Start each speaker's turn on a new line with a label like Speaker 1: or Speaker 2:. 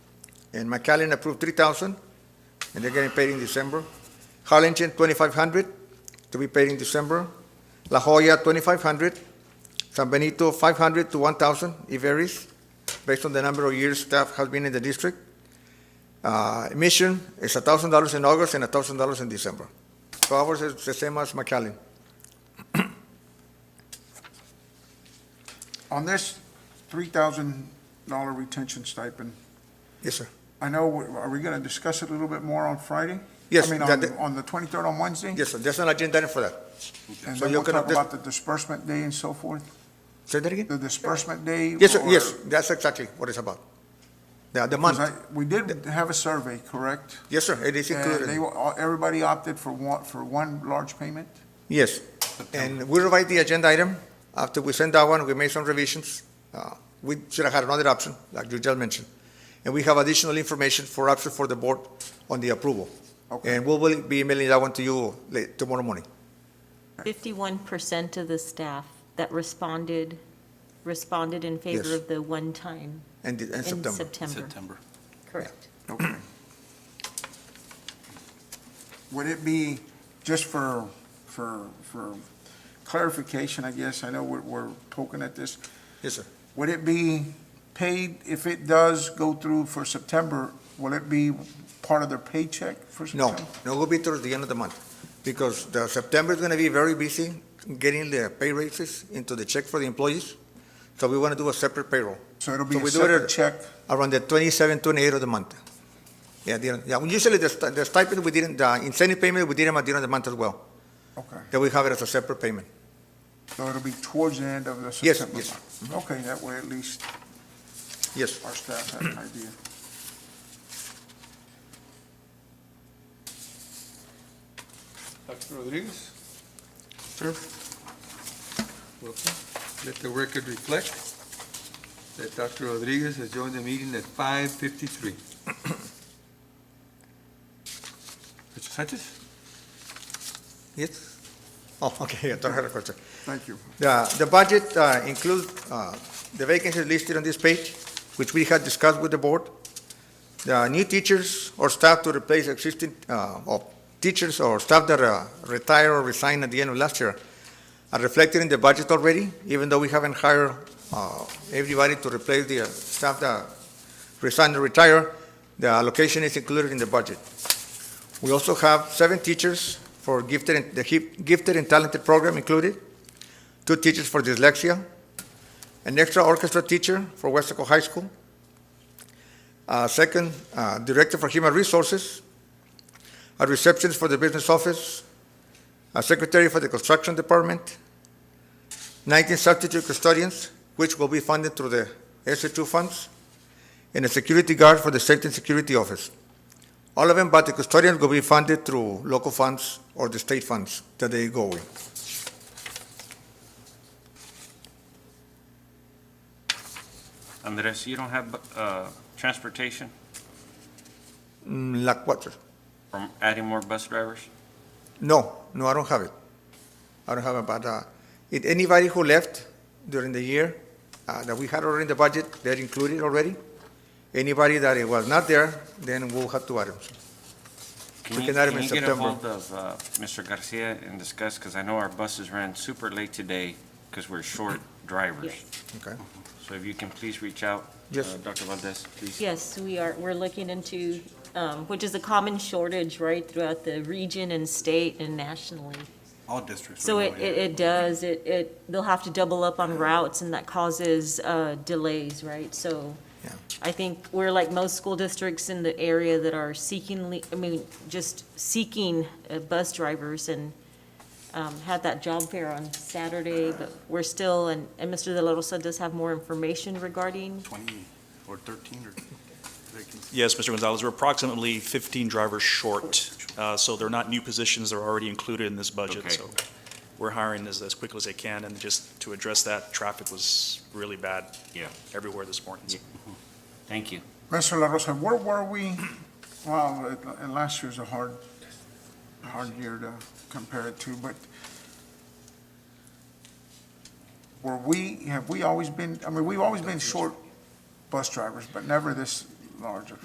Speaker 1: And McAllen approved three thousand, and they're getting paid in December. Harlingen, twenty-five hundred, to be paid in December. La Jolla, twenty-five hundred. San Benito, five hundred to one thousand, it varies, based on the number of years staff has been in the district. Uh, Mission is thousand dollars in August and thousand dollars in December. So ours is the same as McAllen.
Speaker 2: On this three thousand dollar retention stipend,
Speaker 1: Yes, sir.
Speaker 2: I know, are we gonna discuss it a little bit more on Friday?
Speaker 1: Yes,
Speaker 2: I mean, um,
Speaker 1: that-
Speaker 2: on,
Speaker 1: that-
Speaker 2: on the twenty-third on Wednesday?
Speaker 1: Yes, sir, there's an agenda item for that.
Speaker 2: And
Speaker 1: So
Speaker 2: then
Speaker 1: you're
Speaker 2: we'll
Speaker 1: gonna
Speaker 2: talk
Speaker 1: dis-
Speaker 2: about the disbursement day and so forth,
Speaker 1: Say that again?
Speaker 2: the disbursement day?
Speaker 1: Yes, sir,
Speaker 2: or-
Speaker 1: yes, that's exactly what it's about. The, the
Speaker 2: 'cause
Speaker 1: month,
Speaker 2: I- We did have a survey, correct?
Speaker 1: yes, sir, it is
Speaker 2: And they,
Speaker 1: included,
Speaker 2: were- all- everybody opted for one, for one large payment?
Speaker 1: yes. And we revised the agenda item, after we sent that one, we made some revisions. Uh, We should have had another option, like you just mentioned. And we have additional information for option for the board on the approval.
Speaker 2: Okay.
Speaker 1: And we will be emailing that one to you late tomorrow morning.
Speaker 3: Fifty-one percent of the staff that responded, responded in favor
Speaker 1: Yes.
Speaker 3: of the one-time
Speaker 1: And, the- and
Speaker 3: in
Speaker 1: September.
Speaker 3: September.
Speaker 4: September.
Speaker 3: Correct.
Speaker 2: Okay. Would it be, just for, for, for clarification, I guess, I know we're, we're poking at this,
Speaker 1: Yes, sir.
Speaker 2: would it be paid, if it does go through for September, will it be part of their paycheck for
Speaker 1: No,
Speaker 2: September?
Speaker 1: no, will be towards the end of the month, because the September is gonna be very busy getting the pay raises into the check for the employees. So we wanna do a separate payroll
Speaker 2: So it'll be
Speaker 1: So
Speaker 2: a
Speaker 1: we do it
Speaker 2: separate
Speaker 1: at-
Speaker 2: check?
Speaker 1: around the 27, 28 of the month. Yeah, the, yeah, well, usually the sti- the stipend, we didn't, the incentive payment, we did them at the end of the month as well.
Speaker 2: Okay,
Speaker 1: Then we have it as a separate payment.
Speaker 2: so it'll be towards the end of the
Speaker 1: Yes,
Speaker 2: September
Speaker 1: yes.
Speaker 2: month? Okay, that way at least
Speaker 1: Yes.
Speaker 2: our staff have an idea.
Speaker 5: Dr. Rodriguez? Sir? Welcome. Let the record reflect that Dr. Rodriguez has joined the meeting at five fifty-three. Mr. Sanchez?
Speaker 1: Yes? Oh, okay, I thought I had a question.
Speaker 2: Thank you.
Speaker 1: The, the budget uh, includes uh, the vacancies listed on this page, which we had discussed with the board. The new teachers or staff to replace existing, uh, or teachers or staff that uh, retire or resign at the end of last year are reflected in the budget already, even though we haven't hired uh, everybody to replace the uh, staff that resigned or retire, the allocation is included in the budget. We also have seven teachers for gifted, and- the hip- gifted and talented program included two teachers for dyslexia, an extra orchestra teacher for Westaco High School, a second uh, director for human resources, a receptionist for the business office, a secretary for the construction department, 19 substitute custodians, which will be funded through the SHU funds, and a security guard for the safety and security office. All of them but the custodians will be funded through local funds or the state funds that they go with.
Speaker 6: Andres, you don't have uh, transportation
Speaker 1: Mm, La cuatro.
Speaker 6: from adding more bus drivers?
Speaker 1: No, no, I don't have it. I don't have it, but uh, it, anybody who left during the year uh, that we had already in the budget, they're included already. Anybody that it was not there, then we'll have to add them. We
Speaker 6: Can you,
Speaker 1: can add them
Speaker 6: can
Speaker 1: in
Speaker 6: you get a
Speaker 1: September.
Speaker 6: hold of uh, Mr. Garcia and discuss, because I know our buses ran super late today because we're short drivers.
Speaker 1: Okay.
Speaker 6: So if you can please reach out, uh,
Speaker 1: Yes.
Speaker 6: Dr. Valdez, please.
Speaker 3: Yes, we are, we're looking into, um, which is a common shortage, right, throughout the region and state and nationally.
Speaker 4: All districts.
Speaker 3: So
Speaker 4: are
Speaker 3: it,
Speaker 4: going.
Speaker 3: it it does, it, it, they'll have to double up on routes, and that causes uh, delays, right? So
Speaker 1: Yeah.
Speaker 3: I think we're like most school districts in the area that are seeking, le- I mean, just seeking uh, bus drivers, and um, had that job fair on Saturday, but we're still, and, and Mr. De La Rosa does have more information regarding,
Speaker 4: Twenty or thirteen or vacancies.
Speaker 7: Yes, Mr. Gonzalez, we're approximately 15 drivers short, Uh, so they're not new positions, they're already included in this budget,
Speaker 6: Okay.
Speaker 7: so we're hiring as, as quickly as they can, and just to address that, traffic was really bad
Speaker 6: Yeah.
Speaker 7: everywhere this morning. so.
Speaker 6: Thank you.
Speaker 2: Mr. La Rosa, where were we? Well, it- and last year's a hard, hard year to compare it to, but were we, have we always been, I mean, we've always been short bus drivers, but never this large.